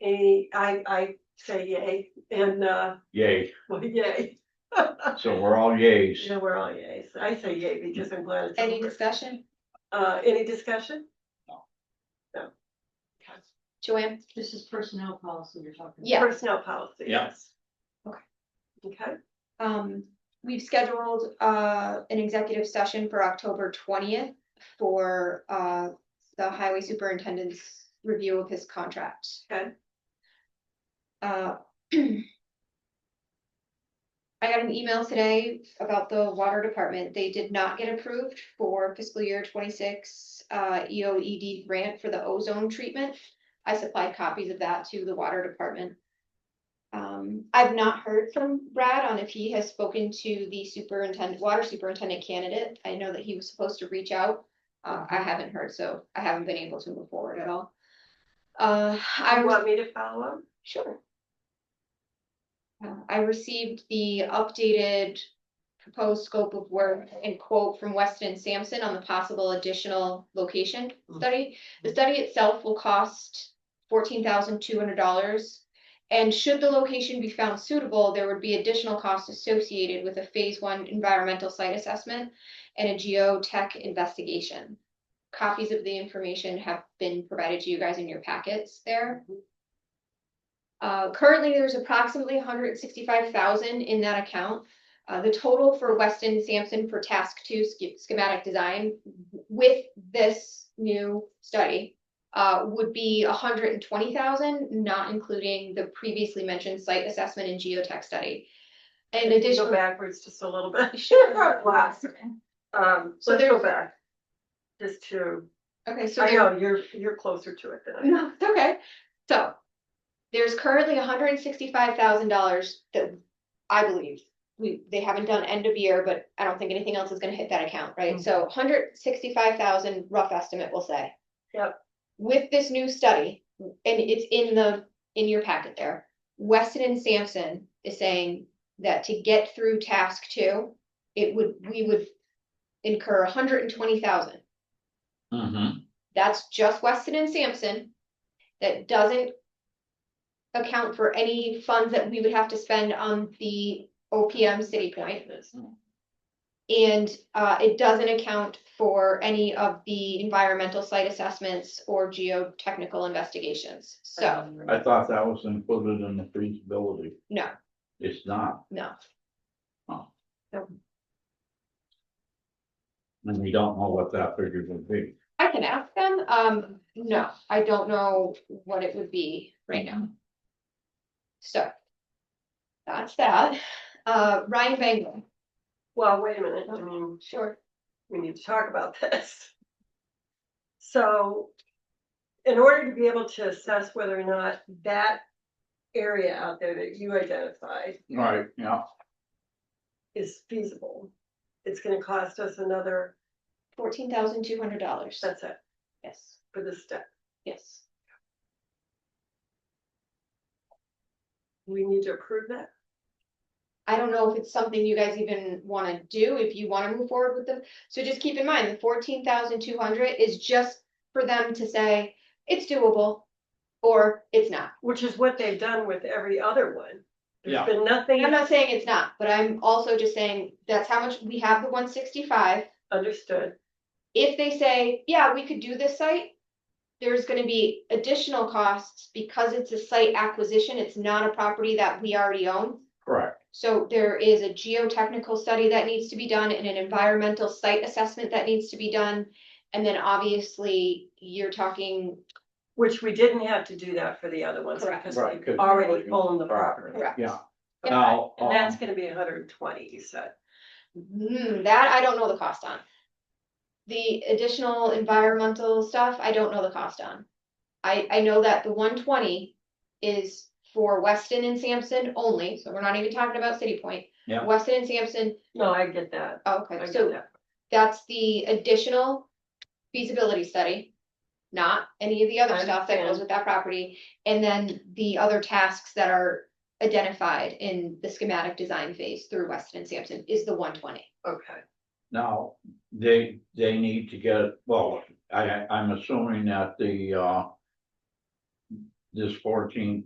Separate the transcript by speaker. Speaker 1: a, I, I say yay, and, uh,
Speaker 2: Yay,
Speaker 1: well, yay,
Speaker 2: so we're all yays.
Speaker 1: yeah, we're all yays, I say yay because I'm glad it's
Speaker 3: Any
Speaker 1: over.
Speaker 3: discussion?
Speaker 1: Uh, any discussion?
Speaker 3: Joanne?
Speaker 4: This is personnel policy you're talking.
Speaker 3: Yeah.
Speaker 1: Personnel policy,
Speaker 2: Yeah.
Speaker 1: yes.
Speaker 3: Okay.
Speaker 1: Okay,
Speaker 3: Um, we've scheduled, uh, an executive session for October twentieth for, uh, the highway superintendent's review of his contract.
Speaker 1: Okay.
Speaker 3: Uh. I got an email today about the water department. They did not get approved for fiscal year twenty-six, uh, EOED grant for the ozone treatment. I supplied copies of that to the water department. Um, I've not heard from Brad on if he has spoken to the superintendent, water superintendent candidate. I know that he was supposed to reach out. Uh, I haven't heard, so I haven't been able to move forward at all. Uh, I
Speaker 1: you
Speaker 3: was.
Speaker 1: want me to follow up?
Speaker 3: Sure. Uh, I received the updated proposed scope of work and quote from Weston Sampson on the possible additional location
Speaker 4: Mhm.
Speaker 3: study. The study itself will cost fourteen thousand two hundred dollars. And should the location be found suitable, there would be additional costs associated with a phase one environmental site assessment and a geotech investigation. Copies of the information have been provided to you guys in your packets there. Uh, currently, there's approximately hundred and sixty-five thousand in that account. Uh, the total for Weston Sampson for task two sch- schematic design w- with this new study uh, would be hundred and twenty thousand, not including the previously mentioned site assessment and geotech study. And
Speaker 1: Go
Speaker 3: additionally,
Speaker 1: backwards just a little bit.
Speaker 3: Sure.
Speaker 1: Last. Um,
Speaker 3: So
Speaker 1: let's go
Speaker 3: there's-
Speaker 1: back. Just to,
Speaker 3: okay, so.
Speaker 1: I
Speaker 3: there-
Speaker 1: know, you're, you're closer to it than I am.
Speaker 3: No, it's okay. So there's currently hundred and sixty-five thousand dollars that I believe we, they haven't done end of year, but I don't think anything else is gonna hit that account, right? So hundred sixty-five thousand rough estimate, we'll say.
Speaker 1: Yep.
Speaker 3: With this new study, and it's in the, in your packet there, Weston and Sampson is saying that to get through task two, it would, we would incur hundred and twenty thousand.
Speaker 2: Mm-hmm.
Speaker 3: That's just Weston and Sampson. That doesn't. Account for any funds that we would have to spend on the OPM City Point. And uh, it doesn't account for any of the environmental site assessments or geotechnical investigations. So,
Speaker 4: Um,
Speaker 2: I thought that was included in the feasibility.
Speaker 3: no,
Speaker 2: It's not,
Speaker 3: no.
Speaker 2: and we don't know what that figure would be.
Speaker 3: I can ask them. Um, no, I don't know what it would be right now. So. That's that. Uh, Ryan Bangor,
Speaker 1: Well, wait a minute, I mean,
Speaker 3: sure.
Speaker 1: we need to talk about this. So in order to be able to assess whether or not that area out there that you identified
Speaker 2: Right, yeah.
Speaker 1: is feasible, it's gonna cost us another,
Speaker 3: Fourteen thousand two hundred dollars.
Speaker 1: that's it,
Speaker 3: Yes,
Speaker 1: for this step.
Speaker 3: yes.
Speaker 1: We need to approve that.
Speaker 3: I don't know if it's something you guys even wanna do, if you wanna move forward with them. So just keep in mind, the fourteen thousand two hundred is just for them to say, it's doable. Or it's not.
Speaker 1: Which is what they've done with every other one.
Speaker 2: Yeah.
Speaker 1: There's been nothing
Speaker 3: I'm not saying it's not, but I'm also just saying, that's how much, we have the one sixty-five.
Speaker 1: understood.
Speaker 3: If they say, yeah, we could do this site. There's gonna be additional costs because it's a site acquisition, it's not a property that we already own.
Speaker 2: Correct,
Speaker 3: So there is a geotechnical study that needs to be done and an environmental site assessment that needs to be done. And then obviously, you're talking,
Speaker 1: Which we didn't have to do that for the other ones
Speaker 3: Correct.
Speaker 1: because
Speaker 2: Right,
Speaker 1: we
Speaker 2: 'cause-
Speaker 1: already own the property.
Speaker 3: Correct.
Speaker 2: yeah.
Speaker 3: Yeah.
Speaker 2: Now,
Speaker 1: And that's
Speaker 2: um,
Speaker 1: gonna be hundred and twenty, you said.
Speaker 3: hmm, that I don't know the cost on. The additional environmental stuff, I don't know the cost on. I, I know that the one twenty is for Weston and Sampson only, so we're not even talking about City Point.
Speaker 2: Yeah.
Speaker 3: Weston and Sampson, oh,
Speaker 1: No, I get that. I
Speaker 3: okay,
Speaker 1: get
Speaker 3: so
Speaker 1: that.
Speaker 3: That's the additional feasibility study, not any of the other
Speaker 1: I
Speaker 3: stuff that goes
Speaker 1: understand.
Speaker 3: with that property. And then the other tasks that are identified in the schematic design phase through Weston and Sampson is the one twenty.
Speaker 1: Okay.
Speaker 2: now, they, they need to get, well, I, I'm assuming that the, uh. this fourteen